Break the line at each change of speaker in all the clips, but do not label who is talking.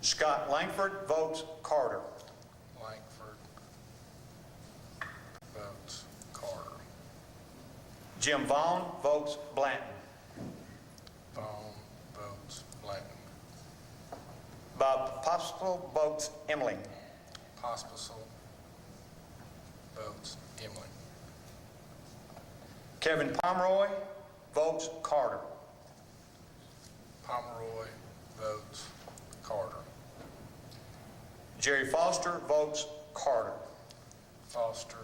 Scott Langford votes Carter.
Langford votes Carter.
Jim Vaughn votes Blanton.
Vaughn votes Blanton.
Bob Postle votes Emling.
Pospisil votes Emily.
Kevin Pomeroy votes Carter.
Pomeroy votes Carter.
Jerry Foster votes Carter.
Foster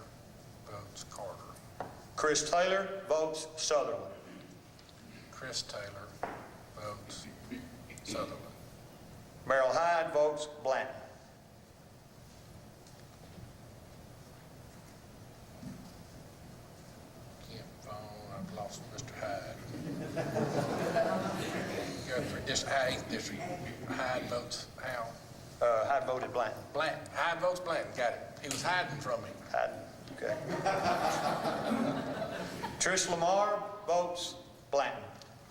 votes Carter.
Chris Taylor votes Sutherland.
Chris Taylor votes Sutherland.
Merrill Hyde votes Blanton.
Kent Vaughn, I've lost Mr. Hyde. Guthrie, District, eighth district, Hyde votes Hal.
Uh, Hyde voted Blanton.
Blanton, Hyde votes Blanton, got it. He was hiding from me.
Hyde, okay. Trish Lamar votes Blanton.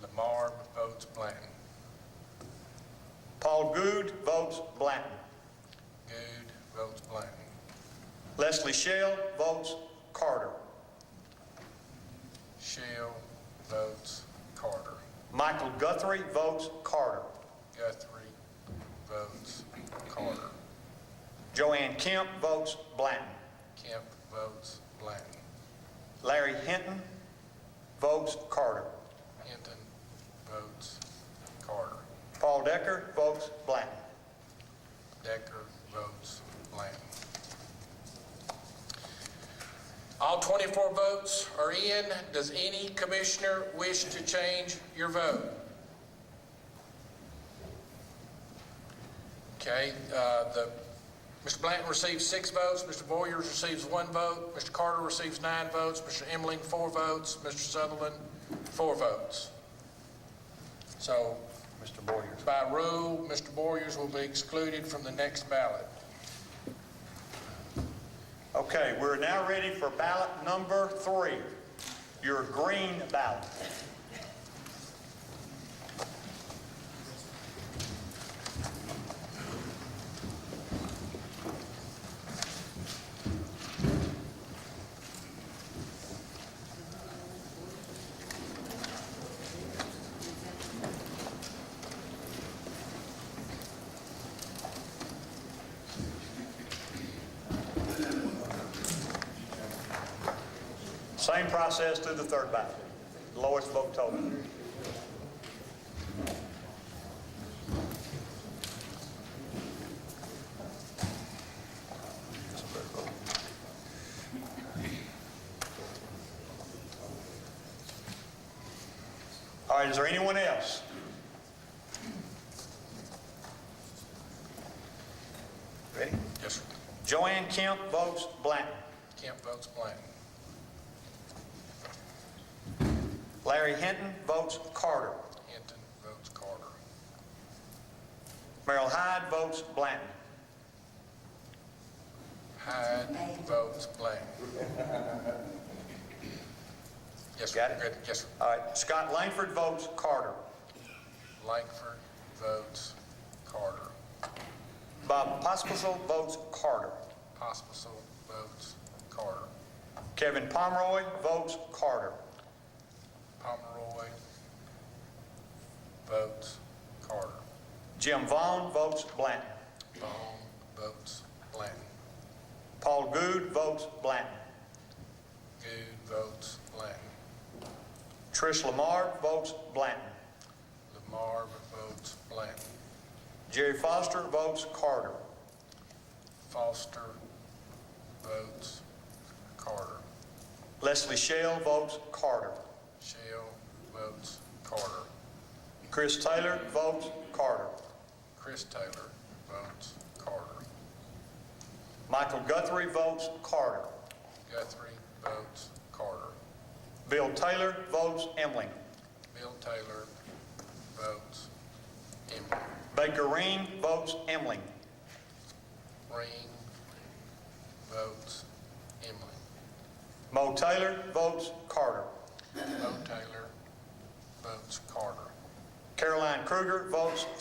Lamar votes Blanton.
Paul Goode votes Blanton.
Good votes Blanton.
Leslie Shell votes Carter.
Shell votes Carter.
Michael Guthrie votes Carter.
Guthrie votes Carter.
Joanne Kemp votes Blanton.
Kemp votes Blanton.
Larry Hinton votes Carter.
Hinton votes Carter.
Paul Decker votes Blanton.
Decker votes Blanton. All 24 votes are in. Does any commissioner wish to change your vote? Okay, uh, the, Mr. Blanton receives six votes, Mr. Boyers receives one vote, Mr. Carter receives nine votes, Mr. Emling, four votes, Mr. Sutherland, four votes. So
Mr. Boyer.
by rule, Mr. Boyers will be excluded from the next ballot.
Okay, we're now ready for ballot number three, your green ballot. Same process through the third ballot, lowest vote total. All right, is there anyone else? Ready?
Yes, sir.
Joanne Kemp votes Blanton.
Kemp votes Blanton.
Larry Hinton votes Carter.
Hinton votes Carter.
Merrill Hyde votes Blanton.
Hyde votes Blanton. Yes, sir.
Got it?
Good. Yes, sir.
All right, Scott Langford votes Carter.
Langford votes Carter.
Bob Pospisil votes Carter.
Pospisil votes Carter.
Kevin Pomeroy votes Carter.
Pomeroy votes Carter.
Jim Vaughn votes Blanton.
Vaughn votes Blanton.
Paul Goode votes Blanton.
Good votes Blanton.
Trish Lamar votes Blanton.
Lamar votes Blanton.
Jerry Foster votes Carter.
Foster votes Carter.
Leslie Shell votes Carter.
Shell votes Carter.
Chris Taylor votes Carter.
Chris Taylor votes Carter.
Michael Guthrie votes Carter.
Guthrie votes Carter.
Bill Taylor votes Emling.
Bill Taylor votes Emily.
Baker Reen votes Emling.
Green votes Emily.
Mo Taylor votes Carter.
Bo Taylor votes Carter.
Caroline Kruger votes